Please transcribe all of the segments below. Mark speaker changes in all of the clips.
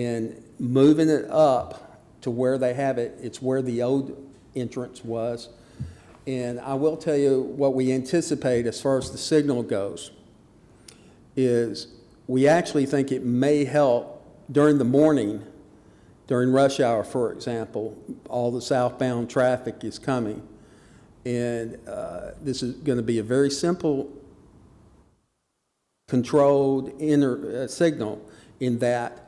Speaker 1: And moving it up to where they have it, it's where the old entrance was. And I will tell you what we anticipate as far as the signal goes is we actually think it may help during the morning, during rush hour, for example, all the southbound traffic is coming. And uh, this is going to be a very simple controlled inner uh, signal in that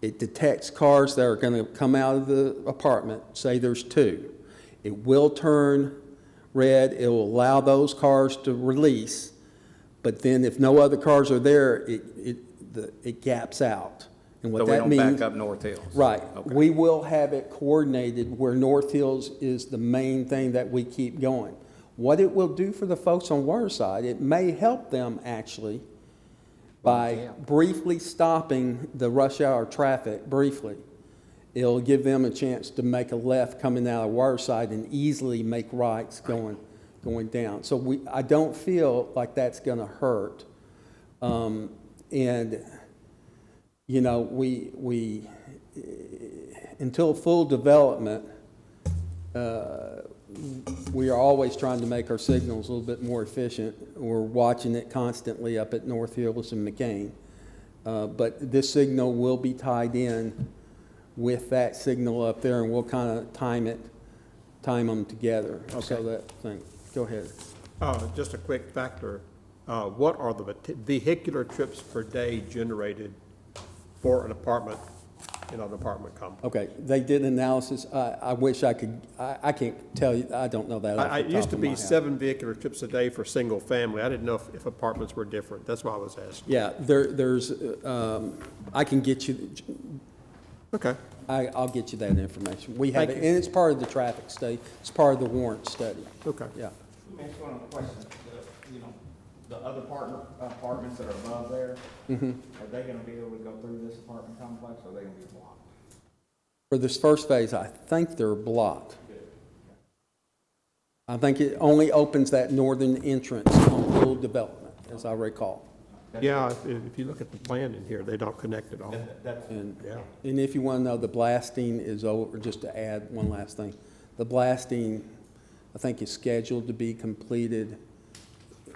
Speaker 1: it detects cars that are going to come out of the apartment, say there's two. It will turn red, it will allow those cars to release, but then if no other cars are there, it, it, the- it gaps out. And
Speaker 2: So
Speaker 1: what
Speaker 2: we
Speaker 1: that
Speaker 2: don't back
Speaker 1: means.
Speaker 2: up North Hills?
Speaker 1: Right.
Speaker 2: Okay.
Speaker 1: We will have it coordinated where North Hills is the main thing that we keep going. What it will do for the folks on Waterside, it may help them actually by briefly stopping the rush hour traffic briefly. It'll give them a chance to make a left coming out of Waterside and easily make rights going, going down. So we, I don't feel like that's gonna hurt. Um, and, you know, we, we, until full development, uh, we are always trying to make our signals a little bit more efficient. We're watching it constantly up at North Hills and McCain. Uh, But this signal will be tied in with that signal up there, and we'll kind of time it, time them together. So
Speaker 2: Okay.
Speaker 1: that thing, go ahead.
Speaker 3: Uh, Just a quick factor, Uh, what are the veti- vehicular trips per day generated for an apartment in an apartment complex?
Speaker 1: Okay, they did analysis. I, I wish I could, I, I can't tell you, I don't know that off
Speaker 3: I- I-
Speaker 1: the
Speaker 3: It used
Speaker 1: top
Speaker 3: to
Speaker 1: of my
Speaker 3: be
Speaker 1: head.
Speaker 3: seven vehicular trips a day for single family. I didn't know if- if apartments were different. That's why I was asking.
Speaker 1: Yeah, there, there's, uh, um, I can get you,
Speaker 3: Okay.
Speaker 1: I, I'll get you that information. We have it,
Speaker 3: Thank
Speaker 1: and
Speaker 3: you.
Speaker 1: it's part of the traffic study, it's part of the warrant study.
Speaker 3: Okay.
Speaker 1: Yeah,
Speaker 4: Let me ask you one other question, the, you know, the other partner, apartments that are above there, are they gonna be able to go through this apartment complex, or are they gonna be blocked?
Speaker 1: for this first phase, I think they're blocked. I think it only opens that northern entrance on full development, as I recall.
Speaker 3: Yeah, if- if you look at the plan in here, they don't connect at all.
Speaker 1: And
Speaker 3: Yeah.
Speaker 1: And if you want to know, the blasting is over, just to add one last thing, the blasting, I think, is scheduled to be completed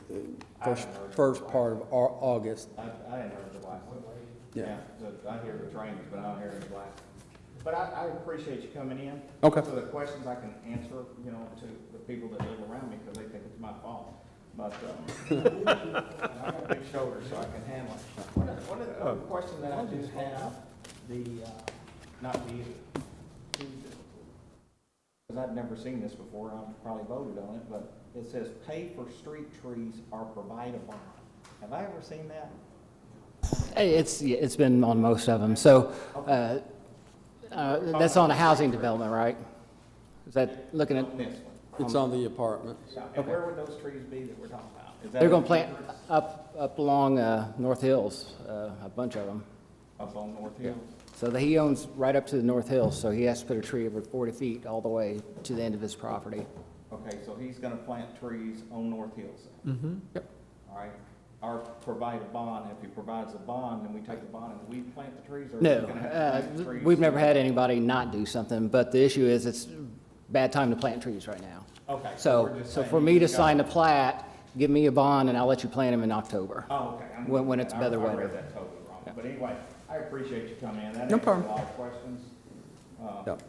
Speaker 1: uh, first, first part of Au- August.
Speaker 4: I, I didn't hear the blast.
Speaker 1: Yeah.
Speaker 4: the- I hear the trains, but I don't hear the blast. But I, I appreciate you coming in.
Speaker 1: Okay.
Speaker 4: So the questions I can answer, you know, to the people that live around me, because they think it's my fault. But, um, I got big shoulders, so I can handle it. Uh, One of, one of the one question that I just have, the, uh, not the, because I've never seen this before, I've probably voted on it, but it says pay for street trees or provide a bond. Have I ever seen that?
Speaker 5: It's, yeah, it's been on most of them, so, uh, uh, that's on a housing development, right? Is that looking at,
Speaker 4: On this one.
Speaker 1: It's on the apartment.
Speaker 4: Yeah, And where would those trees be that we're talking about? Is that
Speaker 5: they're gonna
Speaker 4: in
Speaker 5: plant
Speaker 4: Hebrew?
Speaker 5: up, up along, uh, North Hills, uh, a bunch of them.
Speaker 4: Up on North Hill?
Speaker 5: So that he owns right up to the North Hills, so he has to put a tree over forty feet all the way to the end of his property.
Speaker 4: Okay, so he's gonna plant trees on North Hills then? Mm-hmm. Yep. All right, or provide a bond, if he provides a bond, then we take the bond and we plant the trees, or? is he
Speaker 5: No,
Speaker 4: gonna have to
Speaker 5: uh,
Speaker 4: plant trees?
Speaker 5: we've never had anybody not do something, but the issue is it's bad time to plant trees right now.
Speaker 4: Okay, so
Speaker 5: So,
Speaker 4: we're just
Speaker 5: so
Speaker 4: saying
Speaker 5: for
Speaker 4: you
Speaker 5: me to
Speaker 4: just
Speaker 5: sign the
Speaker 4: gotta-
Speaker 5: plat, give me a bond and I'll let you plant them in October.
Speaker 4: Oh, okay. I'm-
Speaker 5: When- when it's
Speaker 4: I-
Speaker 5: better
Speaker 4: I
Speaker 5: weather.
Speaker 4: read that totally wrong, but anyway, I appreciate you coming in, that
Speaker 1: No
Speaker 4: answers a
Speaker 1: problem.
Speaker 4: lot of questions. Uh,
Speaker 1: Yep.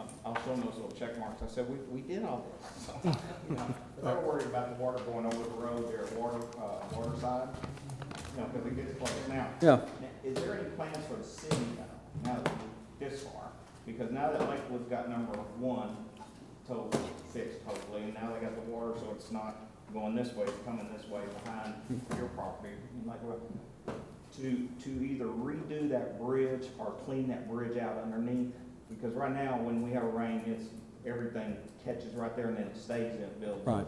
Speaker 4: I'll- I'll show them those little check marks. I said, we, we did all this. So, you know, If they're worried about the water going over the road there at water, uh, waterside, you know, because it gets flooded now.
Speaker 1: Yeah.
Speaker 4: Now, Is there any plans for the city now, now that we're this far? Because now that Lakewood's got number one totally fixed hopefully, and now they got the water, so it's not going this way, it's coming this way behind your property. And like, well, to, to either redo that bridge or clean that bridge out underneath. Because right now, when we have rain, it's, everything catches right there and then it stays in it builds.
Speaker 1: Right.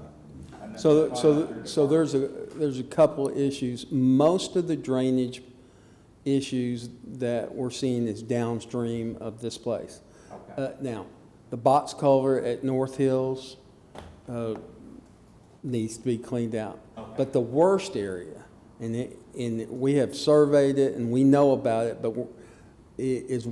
Speaker 4: And that's
Speaker 1: So,
Speaker 4: probably not
Speaker 1: so,
Speaker 4: through the
Speaker 1: so
Speaker 4: park.
Speaker 1: there's a, there's a couple of issues. Most of the drainage issues that we're seeing is downstream of this place.
Speaker 4: Okay,
Speaker 1: Uh, Now, the box culvert at North Hills uh, needs to be cleaned out.
Speaker 4: Okay.
Speaker 1: But the worst area, and it, and we have surveyed it and we know about it, but we're- i- is